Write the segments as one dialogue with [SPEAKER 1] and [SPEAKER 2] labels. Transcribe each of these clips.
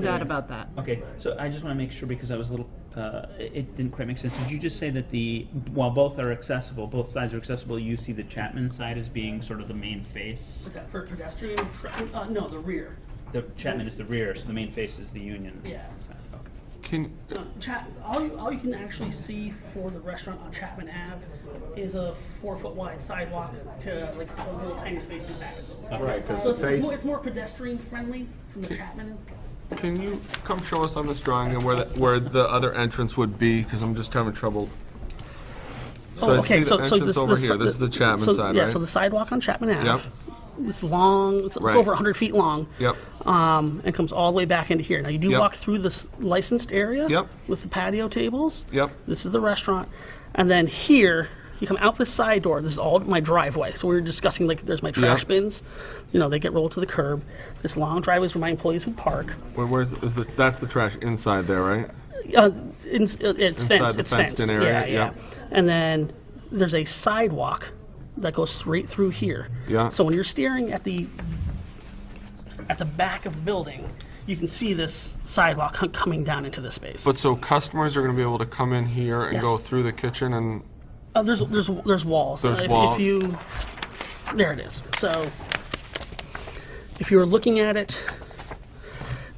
[SPEAKER 1] doubt about that.
[SPEAKER 2] Okay, so I just want to make sure because I was a little, uh, it it didn't quite make sense. Did you just say that the, while both are accessible, both sides are accessible, you see the Chapman side as being sort of the main face?
[SPEAKER 3] Okay, for pedestrian, tra- uh, no, the rear.
[SPEAKER 2] The Chapman is the rear, so the main face is the Union.
[SPEAKER 3] Yeah.
[SPEAKER 2] side. Okay.
[SPEAKER 4] Can,
[SPEAKER 3] No, Chap- all, you, all you can actually see for the restaurant on Chapman Ave is a four foot wide sidewalk to like a little tiny space in the back.
[SPEAKER 4] right, because
[SPEAKER 3] So it's,
[SPEAKER 4] the
[SPEAKER 3] it's, more,
[SPEAKER 4] face,
[SPEAKER 3] it's more pedestrian friendly from the Chapman.
[SPEAKER 4] can you come show us on this drawing and where, the- where the other entrance would be? Because I'm just having trouble. So I
[SPEAKER 3] Oh,
[SPEAKER 4] see the entrance over here, this is the Chapman
[SPEAKER 3] so,
[SPEAKER 4] side,
[SPEAKER 3] Yeah, so the
[SPEAKER 4] right?
[SPEAKER 3] sidewalk on Chapman Ave.
[SPEAKER 4] Yep,
[SPEAKER 3] It's long. It's,
[SPEAKER 4] Right.
[SPEAKER 3] it's over 100 feet long.
[SPEAKER 4] yep,
[SPEAKER 3] Um, and comes all the way back into here. Now you do
[SPEAKER 4] Yep.
[SPEAKER 3] walk through this licensed area.
[SPEAKER 4] Yep.
[SPEAKER 3] With the patio tables.
[SPEAKER 4] yep,
[SPEAKER 3] This is the restaurant, and then here you come out this side door. This is all my driveway. So we were discussing like there's my trash
[SPEAKER 4] Yeah.
[SPEAKER 3] bins. You know they get rolled to the curb. This long driveway is where my employees would park.
[SPEAKER 4] where, where's, is the, that's the trash inside there, right?
[SPEAKER 3] Uh, in, it's fenced.
[SPEAKER 4] the
[SPEAKER 3] It's
[SPEAKER 4] fenced-in
[SPEAKER 3] fenced.
[SPEAKER 4] area,
[SPEAKER 3] Yeah, yeah.
[SPEAKER 4] yeah.
[SPEAKER 3] And then there's a sidewalk that goes straight through here.
[SPEAKER 4] Yeah.
[SPEAKER 3] So when you're staring at the at the back of the building, you can see this sidewalk co- coming down into this space.
[SPEAKER 4] But so customers are gonna be able to come in here and go
[SPEAKER 3] Yes.
[SPEAKER 4] through the kitchen and,
[SPEAKER 3] Uh, there's there's there's walls.
[SPEAKER 4] There's
[SPEAKER 3] if,
[SPEAKER 4] walls.
[SPEAKER 3] If you, there it is. So, if you were looking at it,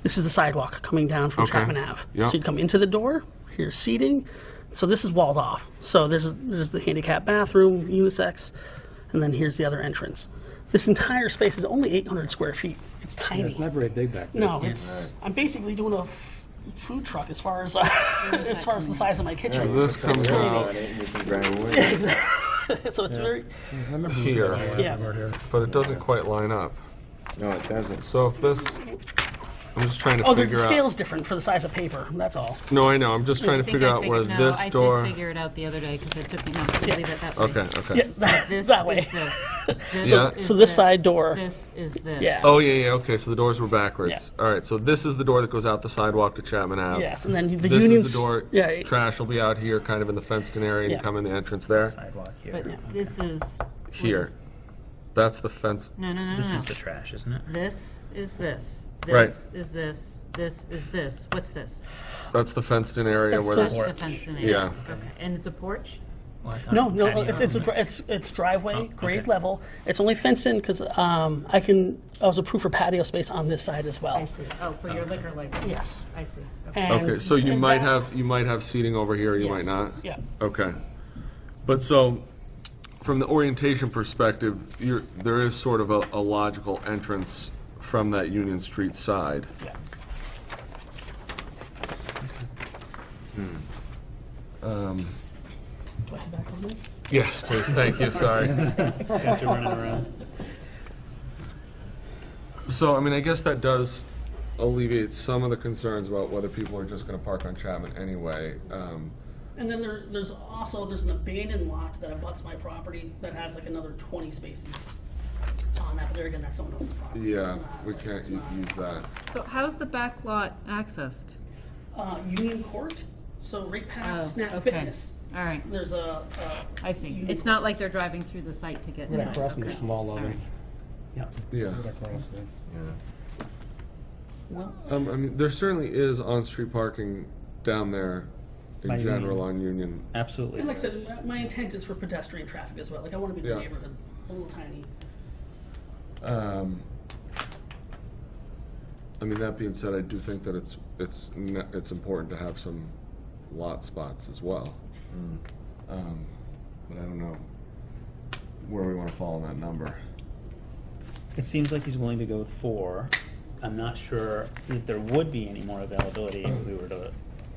[SPEAKER 3] this is the sidewalk coming down from
[SPEAKER 4] Okay.
[SPEAKER 3] Chapman Ave.
[SPEAKER 4] Yeah.
[SPEAKER 3] So you'd come into the door. Here's seating. So this is walled off. So there's there's the handicap bathroom, unisex, and then here's the other entrance. This entire space is only 800 square feet. It's tiny.
[SPEAKER 5] It's not very big back there.
[SPEAKER 3] No, it's. I'm basically doing a f- food truck as far as uh, as far as the size of my kitchen.
[SPEAKER 4] this comes out
[SPEAKER 3] so it's very.
[SPEAKER 5] I remember
[SPEAKER 4] here,
[SPEAKER 3] Yeah.
[SPEAKER 4] but it doesn't quite line up.
[SPEAKER 6] No, it doesn't.
[SPEAKER 4] So if this, I'm just trying
[SPEAKER 3] Oh,
[SPEAKER 4] to
[SPEAKER 3] the
[SPEAKER 4] figure
[SPEAKER 3] scale's
[SPEAKER 4] out.
[SPEAKER 3] different for the size of paper. That's all.
[SPEAKER 4] No, I know, I'm just trying to
[SPEAKER 7] think
[SPEAKER 4] figure
[SPEAKER 7] I
[SPEAKER 4] out where
[SPEAKER 7] figured- no,
[SPEAKER 4] this
[SPEAKER 7] I
[SPEAKER 4] door.
[SPEAKER 7] did figure it out the other day because it took me months to believe it that way.
[SPEAKER 4] Okay, okay.
[SPEAKER 3] Yeah, that,
[SPEAKER 7] This
[SPEAKER 3] that
[SPEAKER 7] is
[SPEAKER 3] way.
[SPEAKER 7] this.
[SPEAKER 4] Yeah.
[SPEAKER 7] This is
[SPEAKER 3] So this side door.
[SPEAKER 7] This is this.
[SPEAKER 3] Yeah.
[SPEAKER 4] Oh yeah, yeah. Okay, so the doors were backwards. All right, so this is the door that goes out the sidewalk to Chapman Ave.
[SPEAKER 3] Yes, and then the
[SPEAKER 4] This
[SPEAKER 3] unions.
[SPEAKER 4] is the door.
[SPEAKER 3] Yeah.
[SPEAKER 4] Trash will be out here, kind of in the fenced-in area, and
[SPEAKER 3] Yeah.
[SPEAKER 4] come in the entrance there.
[SPEAKER 2] Sidewalk
[SPEAKER 7] But
[SPEAKER 2] here.
[SPEAKER 7] this is. what
[SPEAKER 4] Here,
[SPEAKER 7] is-
[SPEAKER 4] that's the fence.
[SPEAKER 7] No, no, no,
[SPEAKER 2] This
[SPEAKER 1] Uh-huh.
[SPEAKER 7] no, no.
[SPEAKER 2] is the trash, isn't it?
[SPEAKER 7] This is this.
[SPEAKER 4] Right.
[SPEAKER 7] This is this. This is this. What's this?
[SPEAKER 4] That's the fenced-in area
[SPEAKER 3] That's
[SPEAKER 4] where
[SPEAKER 3] the-
[SPEAKER 4] there's.
[SPEAKER 7] That's the fenced in area.
[SPEAKER 4] Yeah.
[SPEAKER 7] Okay, and it's a porch?
[SPEAKER 2] Well, I thought
[SPEAKER 3] No,
[SPEAKER 2] it
[SPEAKER 3] no,
[SPEAKER 2] had the
[SPEAKER 3] it's it's, a,
[SPEAKER 2] other
[SPEAKER 3] gr-
[SPEAKER 2] one.
[SPEAKER 3] it's it's driveway,
[SPEAKER 4] Oh,
[SPEAKER 3] grade
[SPEAKER 2] okay.
[SPEAKER 3] level. It's only fenced in because um, I can. I was approved for patio space on this side as well.
[SPEAKER 7] I see. Oh, for your liquor license?
[SPEAKER 3] Uh, Yes.
[SPEAKER 7] I see. Okay.
[SPEAKER 3] And-
[SPEAKER 4] Okay, so you
[SPEAKER 3] and
[SPEAKER 4] might
[SPEAKER 3] that-
[SPEAKER 4] have you might have seating over here. You
[SPEAKER 3] Yes.
[SPEAKER 4] might not.
[SPEAKER 3] Yeah.
[SPEAKER 4] Okay, but so. From the orientation perspective, you're, there is sort of a, a logical entrance from that Union Street side.
[SPEAKER 3] Yeah.
[SPEAKER 4] Hmm.
[SPEAKER 3] Do I head back over there?
[SPEAKER 4] Yes, please. Thank you. Sorry.
[SPEAKER 2] Got you running around.
[SPEAKER 4] So, I mean, I guess that does alleviate some of the concerns about whether people are just gonna park on Chapman anyway. Um,
[SPEAKER 3] And then there, there's also there's an abandoned lot that abuts my property that has like another 20 spaces on that. But there again, that's someone else's property.
[SPEAKER 4] yeah,
[SPEAKER 3] It's not-
[SPEAKER 4] we can't
[SPEAKER 3] it's
[SPEAKER 4] u-
[SPEAKER 3] not-
[SPEAKER 4] use that.
[SPEAKER 1] So how's the back lot accessed?
[SPEAKER 3] uh, Union Court, so right
[SPEAKER 7] Oh,
[SPEAKER 3] past Snap
[SPEAKER 7] okay.
[SPEAKER 3] Fitness.
[SPEAKER 7] All right.
[SPEAKER 3] There's a, a
[SPEAKER 7] I see. It's not like they're driving through the site to get to
[SPEAKER 5] Right
[SPEAKER 7] it.
[SPEAKER 5] across from the
[SPEAKER 7] Okay.
[SPEAKER 5] small
[SPEAKER 7] All right.
[SPEAKER 5] oven.
[SPEAKER 2] Yeah.
[SPEAKER 4] Yeah.
[SPEAKER 5] Right across there.
[SPEAKER 3] well,
[SPEAKER 4] Um, I mean, there certainly is on-street parking down there
[SPEAKER 2] By
[SPEAKER 4] in
[SPEAKER 2] Union.
[SPEAKER 4] general on Union.
[SPEAKER 2] Absolutely.
[SPEAKER 3] and like I said, my- my intent is for pedestrian traffic as well. Like I want to be in
[SPEAKER 4] Yeah.
[SPEAKER 3] the neighborhood, a little tiny.
[SPEAKER 4] Um, I mean, that being said, I do think that it's, it's, ne- it's important to have some lot spots as well. Um, But I don't know where we wanna fall on that number.
[SPEAKER 2] It seems like he's willing to go with four. I'm not sure that there would be any more availability if we were to,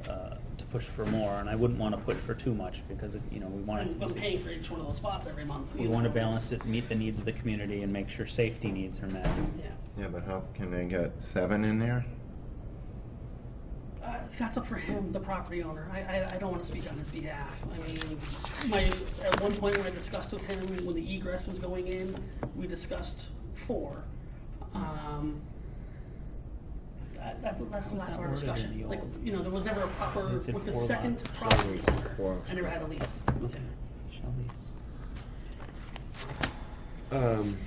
[SPEAKER 2] uh, to push for more, and I wouldn't want to push for too much because, it- you know, we want
[SPEAKER 3] I'm,
[SPEAKER 2] it
[SPEAKER 3] I'm
[SPEAKER 2] to be,
[SPEAKER 3] paying for each one of those spots every month.
[SPEAKER 2] we
[SPEAKER 3] you
[SPEAKER 2] want to
[SPEAKER 3] know,
[SPEAKER 2] balance
[SPEAKER 3] it's-
[SPEAKER 2] it, meet the needs of the community and make sure safety needs are met.
[SPEAKER 3] Yeah,
[SPEAKER 6] Yeah, but how can they get seven in there?
[SPEAKER 3] uh, that's up for him, the property owner. I, I, I don't want to speak on his behalf. I mean, my at one point when I discussed with him when the egress was going in, we discussed four. Um, that, that's, that's the last of our
[SPEAKER 2] That's not worded in
[SPEAKER 3] discussion.
[SPEAKER 2] the
[SPEAKER 3] Like,
[SPEAKER 2] old-
[SPEAKER 3] you know, there was never a proper
[SPEAKER 2] Is it
[SPEAKER 3] with the
[SPEAKER 2] four
[SPEAKER 3] second
[SPEAKER 2] lots?
[SPEAKER 3] property
[SPEAKER 4] So it's
[SPEAKER 3] owner.
[SPEAKER 4] four.
[SPEAKER 3] I never had a lease.
[SPEAKER 2] Okay. Shall we s-
[SPEAKER 4] Um,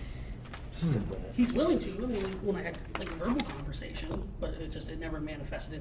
[SPEAKER 2] stick with it.
[SPEAKER 3] He's willing to, I mean, when I had like a verbal conversation, but it just, it never manifested